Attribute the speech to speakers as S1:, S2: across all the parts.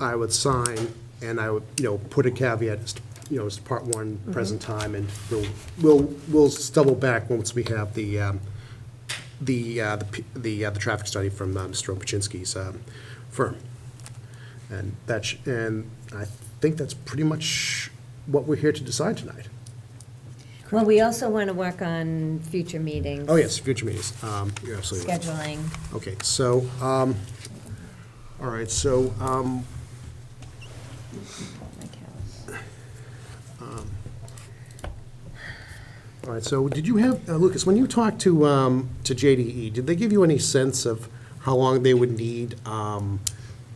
S1: I would sign, and I would, you know, put a caveat, it's, you know, it's part one, present time, and we'll, we'll, we'll stumble back once we have the, um, the, uh, the, p- the, uh, the traffic study from uh, Mr. Obuchinsky's, um firm. And that's, and I think that's pretty much what we're here to decide tonight.
S2: Well, we also want to work on future meetings.
S1: Oh, yes, future meetings, um, you're absolutely right.
S2: Scheduling.
S1: Okay, so, um, all right, so, um,
S2: My calendar.
S1: All right, so did you have, uh, Lucas, when you talked to, um, to JDE, did they give you any sense of how long they would need, um,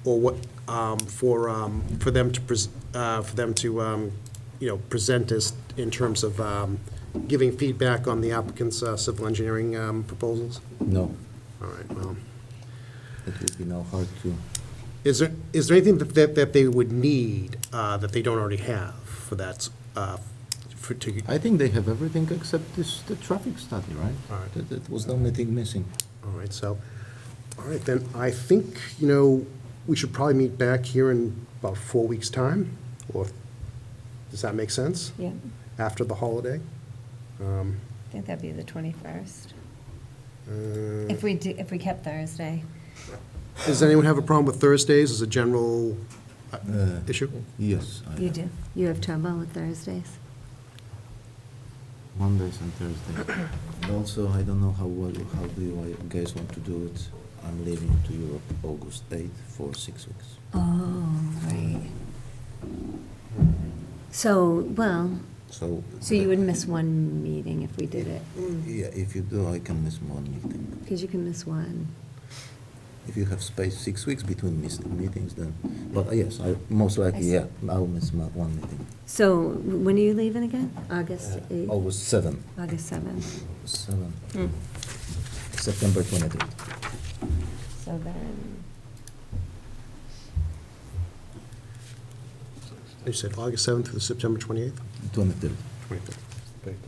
S1: or what, um, for, um, for them to, pres- uh, for them to, um, you know, present us in terms of, um, giving feedback on the applicant's uh, civil engineering, um, proposals?
S3: No,
S1: All right, well,
S3: it would be now hard to,
S1: is there, is there anything that- that, that they would need, uh, that they don't already have for that, uh, for, to,
S3: I think they have everything except this, the traffic study, right?
S1: All right.
S3: That, that was the only thing missing.
S1: All right, so, all right, then, I think, you know, we should probably meet back here in about four weeks' time, or, does that make sense?
S2: Yeah,
S1: After the holiday? Um,
S2: I think that'd be the 21st.
S1: uh,
S2: If we, do- if we kept Thursday.
S1: Does anyone have a problem with Thursdays as a general uh,
S3: Uh,
S1: issue?
S3: Yes. I-
S2: You do. You have trouble with Thursdays?
S3: Mondays and Thursdays. And Also, I don't know how, well- how do you guys want to do it? I'm leaving to Europe August eighth for six weeks.
S2: Oh, right. So, well,
S3: So.
S2: so you would miss one meeting if we did it,
S3: Yeah, if you do, I can miss one meeting.
S2: because you can miss one.
S3: If you have space, six weeks between mis- meetings, then, but uh, yes, I, most
S2: I see.
S3: likely, yeah, I'll miss my one meeting.
S2: So when are you leaving again? August
S3: Uh,
S2: 8th?
S3: August seventh.
S2: August 7th?
S3: Seven.
S2: Hmm. Mm.
S3: September twenty-third.
S2: So then,
S1: You said August 7th through September 28th?
S3: Twenty-third.
S1: 25th.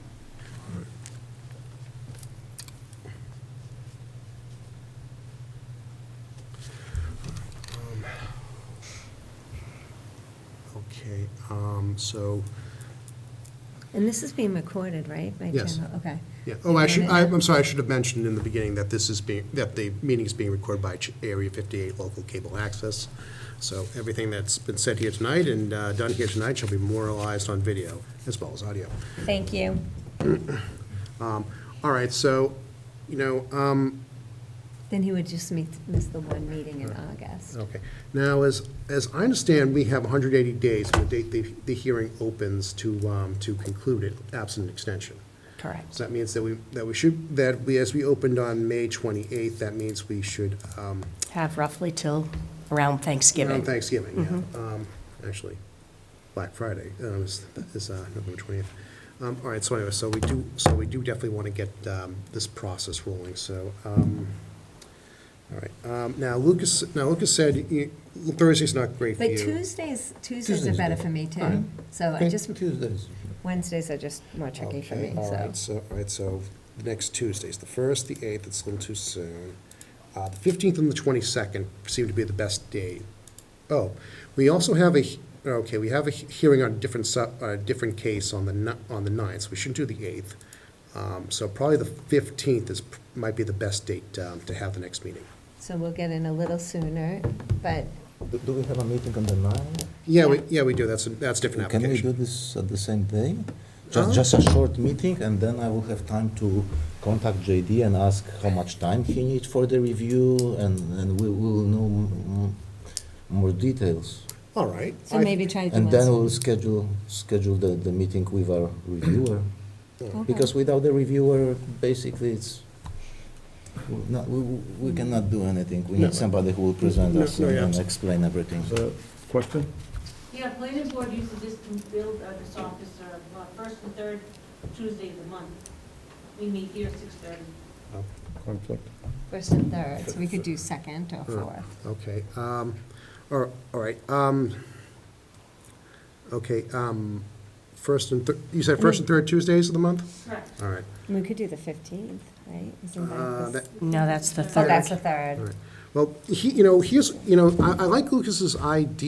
S1: Okay, um, so,
S2: and this is being recorded, right? by
S1: Yes.
S2: channel? Okay.
S1: yeah, oh, I should, I- I'm sorry, I should have mentioned in the beginning that this is being, that the meeting is being recorded by Ch- Area 58 Local Cable Access. So everything that's been said here tonight and uh, done here tonight shall be memorialized on video as well as audio.
S2: Thank you.
S1: Um, All right, so, you know, um,
S2: Then he would just meet, miss the one meeting in August.
S1: Okay. Now, as, as I understand, we have 180 days from the date the, the hearing opens to, um, to conclude it, absent an extension.
S2: Correct.
S1: So that means that we, that we should, that we, as we opened on May 28th, that means we should, um,
S4: have roughly till around Thanksgiving.
S1: around Thanksgiving, yeah. Um, Actually, Black Friday um, is, is uh, November 20th. Um, All right, so anyway, so we do, so we do definitely want to get um, this process rolling, so, um, all right. Um, Now, Lucas, now Lucas said you- Thursday's not great for you.
S2: But Tuesdays, Tuesdays are
S3: Tuesdays
S2: better
S3: do.
S2: for me too. So I just,
S3: Tuesdays.
S2: Wednesdays are just more tricky for me,
S1: Okay, all
S2: so.
S1: right, so, all right, so the next Tuesdays, the first, the eighth, it's a little too soon. Uh, the fifteenth and the twenty-second seem to be the best day. Oh, we also have a, he- okay, we have a he- hearing on a different su, a different case on the ni- on the ninth, so we shouldn't do the eighth. Um, so probably the fifteenth is, p- might be the best date, um, to have the next meeting.
S2: So we'll get in a little sooner, but
S3: Do, do we have a meeting on the ninth?
S1: Yeah, we, yeah, we do, that's, a- that's a different
S3: Can we do
S1: application.
S3: this at the same day? Just,
S1: Oh.
S3: just a short meeting, and then I will have time to contact JD and ask how much time he needs for the review, and, and we will know m- m- more details.
S1: All right.
S2: So
S1: I-
S2: maybe try to
S3: And then
S2: Wednesday.
S3: we'll schedule, schedule the, the meeting with our reviewer.
S2: Okay.
S3: Because without the reviewer, basically, it's, we're not, we, we we cannot do anything. We
S1: No.
S3: need somebody who will present
S1: No,
S3: us
S1: no,
S3: and
S1: yeah,
S3: and
S1: abso-
S3: explain everything.
S5: Uh, Question?
S6: Yeah, planning board usually just can build uh, this office uh, uh, first and third Tuesday of the month. We meet here six thirty.
S5: Conflict?
S2: first and third, so we could do second or fourth.
S1: Okay, um, all all right, um, okay, um, first and third, you said first and third Tuesdays of the month?
S6: Correct.
S1: All right,
S2: We could do the 15th, right? Isn't
S1: Uh,
S2: that the s-
S4: No, that's the
S2: Oh,
S4: third.
S2: that's the
S1: all
S2: third.
S1: right. Well, he, you know, here's, you know, I, I like Lucas's idea